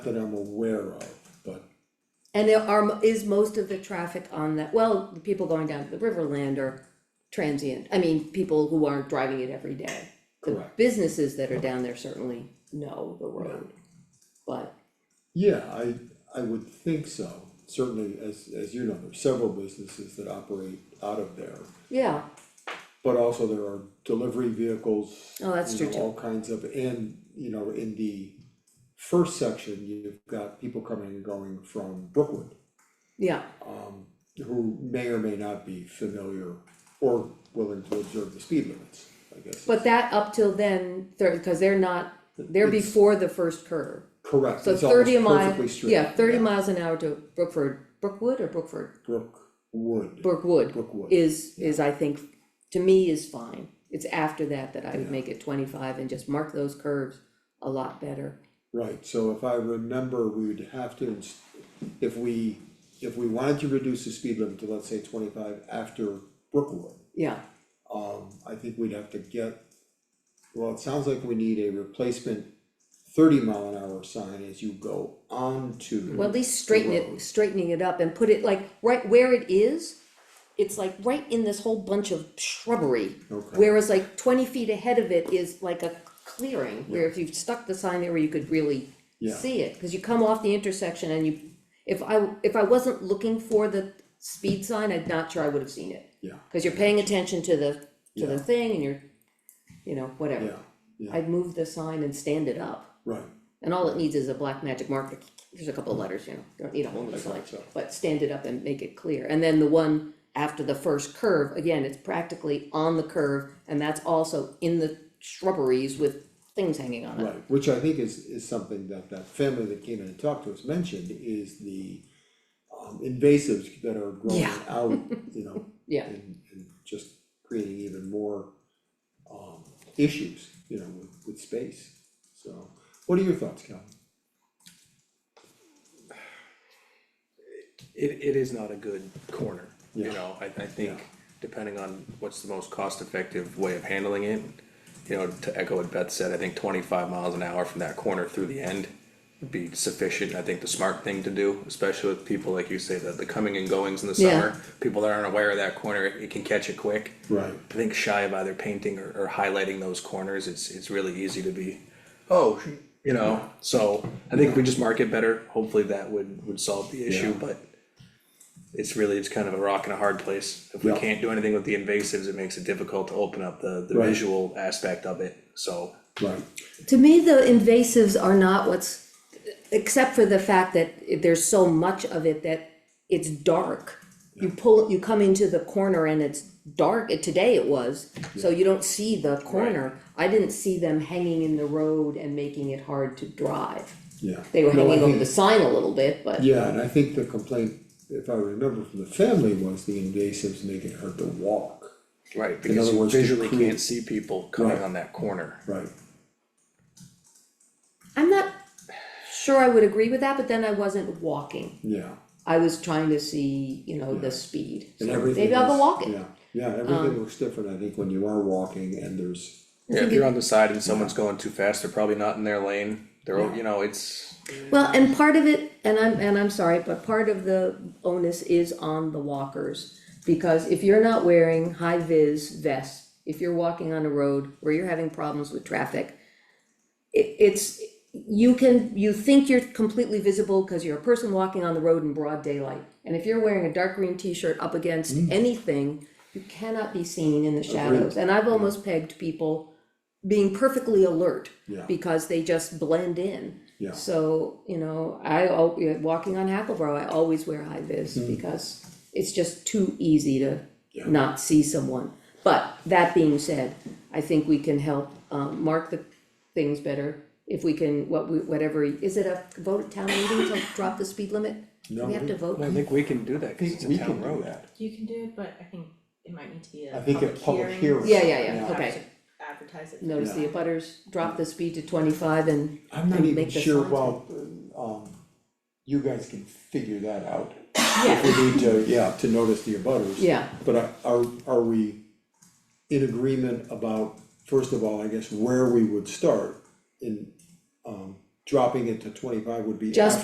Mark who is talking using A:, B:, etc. A: that I'm aware of, but
B: And there are, is most of the traffic on that, well, the people going down to the Riverland are transient, I mean, people who aren't driving it every day. The
A: Correct.
B: businesses that are down there certainly know the road, but,
A: yeah, I, I would think so. Certainly, as, as you know, there's several businesses that operate out of there.
B: yeah,
A: But also there are delivery vehicles.
B: Oh, that's
A: you
B: true
A: know,
B: too.
A: All kinds of, and, you know, in the first section, you've got people coming and going from Brookwood.
B: yeah,
A: Um, who may or may not be familiar or willing to observe the speed limits, I guess.
B: but that up till then, they cause they're not, they're
A: It's-
B: before the first curve.
A: Correct,
B: So
A: it's
B: thirty a
A: almost
B: mile,
A: perfectly straight.
B: yeah, thirty miles an hour to Brookford, Brookwood or Brookford,
A: Brookwood,
B: Brookwood.
A: Brookwood.
B: is, is I think, to me is fine. It's after that that I would make it twenty-five and just mark those curves a lot better.
A: Right, so if I remember, we would have to, ins- if we, if we wanted to reduce the speed limit to, let's say, twenty-five after Brookwood,
B: Yeah,
A: um, I think we'd have to get, well, it sounds like we need a replacement thirty mile an hour sign as you go onto.
B: well, at least straighten
A: road.
B: it, straightening it up and put it like right where it is. It's like right in this whole bunch of shrubbery.
A: Okay.
B: Whereas like twenty feet ahead of it is like a clearing, where if you stuck the sign there where you could really
A: Yeah.
B: see it, cause you come off the intersection and you. If I, if I wasn't looking for the speed sign, I'm not sure I would have seen it.
A: Yeah,
B: Cause you're paying attention to the, to the thing and you're, you know,
A: yeah,
B: whatever.
A: yeah,
B: I'd move the sign and stand it up,
A: right,
B: and all it needs is a black magic marker, there's a couple of letters, you know, you don't need a whole new sign.
A: thought so.
B: But stand it up and make it clear, and then the one after the first curve, again, it's practically on the curve, and that's also in the shrubberies with things hanging on it.
A: right, which I think is, is something that that family that came in and talked to us mentioned, is the um, invasives that are growing
B: Yeah.
A: out, you know,
B: Yeah,
A: and and just creating even more um issues, you know, with with space. So, what are your thoughts, Calvin?
C: it it is not a good corner, you
A: Yeah.
C: know, I I
A: Yeah.
C: think depending on what's the most cost effective way of handling it. You know, to echo what Beth said, I think twenty five miles an hour from that corner through the end would be sufficient, I think the smart thing to do, especially with people like you say, that the coming and goings in the
B: Yeah.
C: summer. People that aren't aware of that corner, it it can catch it quick.
A: Right.
C: I think shy of either painting or, or highlighting those corners, it's, it's really easy to be, oh, sh- you know, so I think if we just mark it better, hopefully that would, would solve the issue,
A: Yeah.
C: but it's really, it's kind of a rock and a hard place. If we
A: Yeah.
C: can't do anything with the invasives, it makes it difficult to open up the, the
A: Right.
C: visual aspect of it, so.
A: Right,
B: to me, the invasives are not what's, except for the fact that it- there's so much of it that it's dark. You pull, you come into the corner and it's dark, it- today it was, so you don't see the corner. I didn't see them hanging in the road and making it hard to drive.
A: yeah.
B: They were
A: No, I
B: hanging over
A: think-
B: the sign a little bit, but,
A: Yeah, and I think the complaint, if I remember from the family, was the invasives make it hard to walk.
C: Right,
A: other
C: because you
A: words, to
C: visually
A: create-
C: can't see people coming
A: Right.
C: on that corner.
A: Right.
B: I'm not sure I would agree with that, but then I wasn't walking.
A: Yeah,
B: I was trying to see, you know, the speed,
A: and
B: So
A: everything
B: maybe I'll go
A: is-
B: walk it. Um,
A: Yeah, yeah, everything looks different, I think, when you are walking and there's,
C: Yeah, if you're on the side and someone's going too fast, they're probably not in their lane, they're, o- you know, it's,
B: Well, and part of it, and I'm, and I'm sorry, but part of the onus is on the walkers. Because if you're not wearing high vis vests, if you're walking on a road where you're having problems with traffic. It, it's, you can, you think you're completely visible because you're a person walking on the road in broad daylight. And if you're wearing a dark green t-shirt up against anything, you cannot be seen in the shadows. And I've almost pegged people being perfectly alert.
A: Yeah.
B: Because they just blend in.
A: yeah,
B: So, you know, I, al- you know, walking on Hackleboro, I always wear high vis because it's just too easy to
A: Mm-hmm. Yeah.
B: not see someone. But that being said, I think we can help, um, mark the things better. If we can, what we, whatever, is it a vote at town meeting to drop the speed limit? Do
A: No,
B: we have to
A: we-
B: vote?
C: I think we can do that, cause it's a
A: we can
C: town
A: do
C: road.
A: that.
D: You can do it, but I think it might need to be a
A: I think a
D: public hearing.
A: public hearing.
B: Yeah, yeah, yeah,
D: You have
B: okay.
D: to Advertise it.
B: Notice the abutters drop the speed to twenty-five and,
A: I'm not
B: and
A: even
B: make the
A: sure,
B: signs
A: well, um, you guys can figure that out.
B: Yeah.
A: If we need to, yeah, to notice the abutters.
B: Yeah.
A: But are- are, are we in agreement about, first of all, I guess, where we would start in, um, dropping it to twenty-five would be
B: Just